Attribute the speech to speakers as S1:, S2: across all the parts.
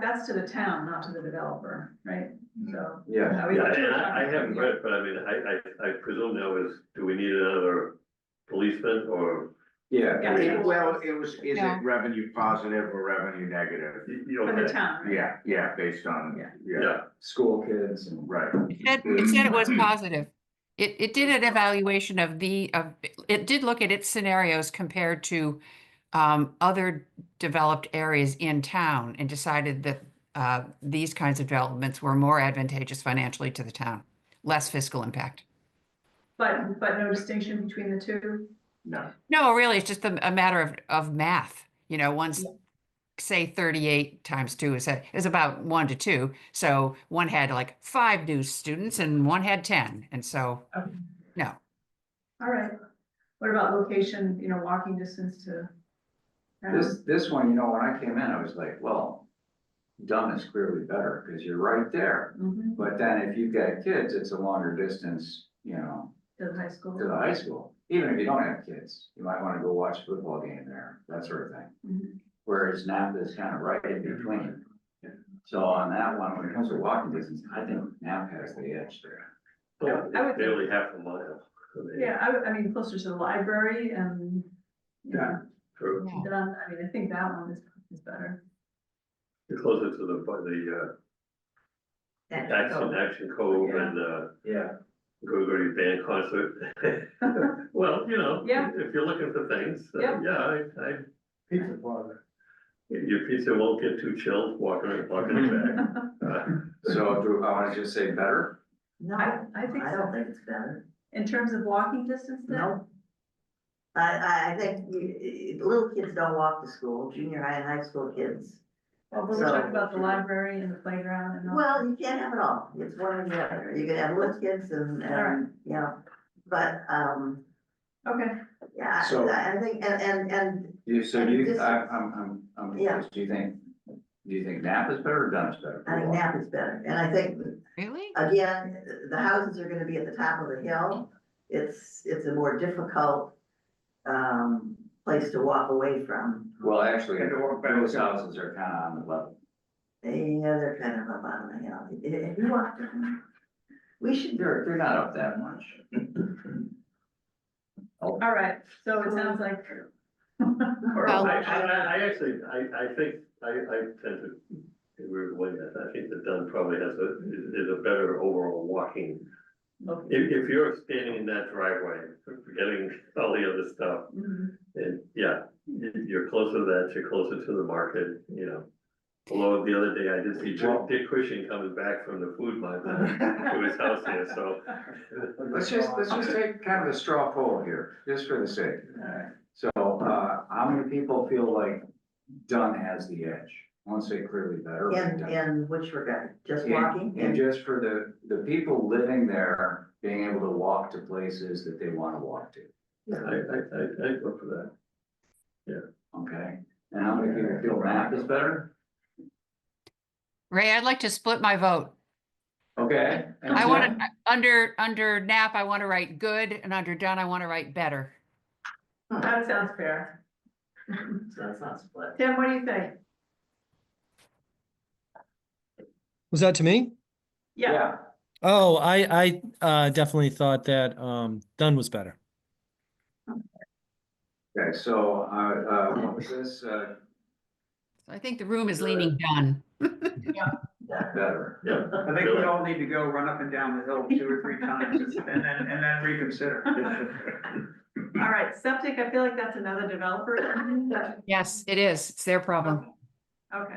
S1: That's to the town, not to the developer, right? So,
S2: Mm-hmm. Yeah.
S1: I would-
S3: Yeah, and I, I haven't read it, but I mean, I, I, I presume now is, do we need another policeman or,
S2: Yeah,
S1: Yeah.
S2: it- well, it was, is
S4: Yeah.
S2: it revenue positive or revenue negative?
S3: you you
S1: for
S3: know,
S1: the town, right?
S2: Yeah, yeah, based on,
S1: Yeah.
S2: yeah,
S3: yeah,
S5: school kids and.
S2: right.
S4: It said, it said it was positive. It, it did an evaluation of the, of, it did look at its scenarios compared to um, other developed areas in town and decided that uh, these kinds of developments were more advantageous financially to the town, less fiscal impact.
S1: But, but no distinction between the two?
S2: No,
S4: No, really, it's just a, a matter of, of math. You know, once, say, 38 times two is, a, is about one to two. So one had like five new students and one had 10. And so,
S1: Okay.
S4: no.
S1: All right. What about location, you know, walking distance to? town?
S5: This, this one, you know, when I came in, I was like, well, done is clearly better, because you're right there.
S1: Mhm,
S5: But then if you've got kids, it's a longer distance, you know,
S1: To the high
S5: to the
S1: school.
S5: high school. Even if you don't have kids, you might wanna go watch a football game there, that sort of thing.
S1: Mhm.
S5: Whereas Napa is kind of right in between. So on that one, when it comes to walking distance, I think Napa has the edge there.
S3: well,
S1: I would-
S3: barely half a mile. I mean,
S1: Yeah, I, would- I mean, closer to the library and, you know,
S3: for-
S4: Yeah.
S1: then, I mean, I think that one is, is better.
S3: Closer to the, by the, uh, Action, Action Cove and, uh,
S2: yeah.
S3: go go to band concert. Well, you know,
S1: Yeah.
S3: if you're looking for things, uh,
S1: Yeah.
S3: yeah, I, I,
S2: Pizza parlor.
S3: your pizza won't get too chilled walking, walking it back. Uh,
S5: So do I wanna just say better?
S6: No,
S1: I, I think
S6: I don't
S1: so.
S6: think it's better.
S1: In terms of walking distance then?
S6: No. I, I, I think you- little kids don't walk to school, junior high and high school kids.
S1: Well, we
S6: So-
S1: talked about the library and the playground and all.
S6: Well, you can't have it all. It's one or the other. You can have little kids and, and, you know, but, um,
S1: Okay,
S6: yeah,
S5: So-
S6: I, I think, and, and, and
S5: You, so
S6: And
S5: you,
S6: this
S5: I,
S6: is-
S5: I'm, I'm, I'm
S6: Yeah.
S5: confused, do you think, do you think Napa is better or Dunn is better? for
S6: I think
S5: walking?
S6: nap is better. And I think,
S4: Really?
S6: again, the houses are gonna be at the top of the hill. It's, it's a more difficult, um, place to walk away from.
S5: Well, actually,
S2: And to walk back
S5: those
S2: down.
S5: houses are kind of on the level.
S6: Yeah, they're kind of up on the hill. Have you walked them? We should,
S5: They're, they're not up that much.
S1: all right, so it sounds like.
S3: I,
S4: Well-
S3: I, I- I actually, I, I think, I, I tend to, in a weird way, I think that Dunn probably has a, is is a better overall walking.
S1: Okay.
S3: If, if you're standing in that driveway, forgetting all the other stuff,
S6: Mm-hmm.
S1: Mhm.
S3: And yeah, you- you're closer to that, you're closer to the market, you know. Although the other day I did see Dick- Dick Cushing coming back from the food mart uh, to his house here, so.
S5: Let's just, let's just take kind of a straw poll here, just for the sake.
S2: Alright.
S5: So, uh, how many people feel like Dunn has the edge? I won't say clearly better. but
S6: in,
S5: Dunn.
S6: in which regard, just
S5: And-
S6: walking?
S5: And just for the, the people living there, being able to walk to places that they want to walk to,
S3: I, I, I, I go for that.
S5: okay? And how many people feel Napa is better?
S4: Ray, I'd like to split my vote.
S5: Okay? and
S4: I want
S5: Jim?
S4: to, under, under nap, I want to write good, and under done, I want to write better.
S1: That sounds fair.
S6: So that's not split.
S1: Tim, what do you think?
S7: Was that to me?
S1: Yeah,
S7: Oh, I I uh, definitely thought that um, Dunn was better.
S5: Okay, so, uh, uh, what was this, uh,
S4: So I think the room is leaning done.
S5: better?
S3: Yeah,
S2: I think we all need to go run up and down the hill two or three times and then, and then reconsider.
S1: all right, septic, I feel like that's another developer.
S4: Yes, it is. It's their problem.
S1: Okay,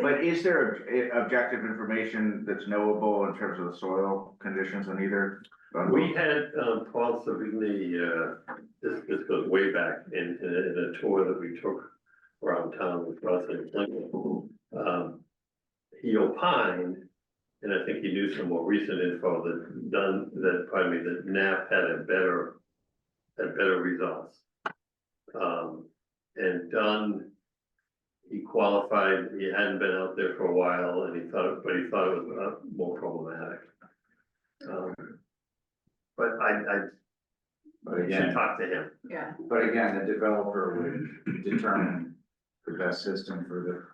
S2: But is there ob- objective information that's knowable in terms of the soil conditions in either?
S3: we had, um, Paul Savigny, uh, this, this goes way back in, in a- in a tour that we took around town with Russ and Clinton. Um, he opined, and I think he knew some more recent info that done, that, pardon me, that NAP had a better, had better results. Um, and Dunn, he qualified, he hadn't been out there for a while, and he thought, but he thought it was uh, more problematic. Um, But I, I,
S5: But
S3: you should
S5: again,
S3: talk to him.
S1: yeah,
S5: but again, the developer would determine the best system for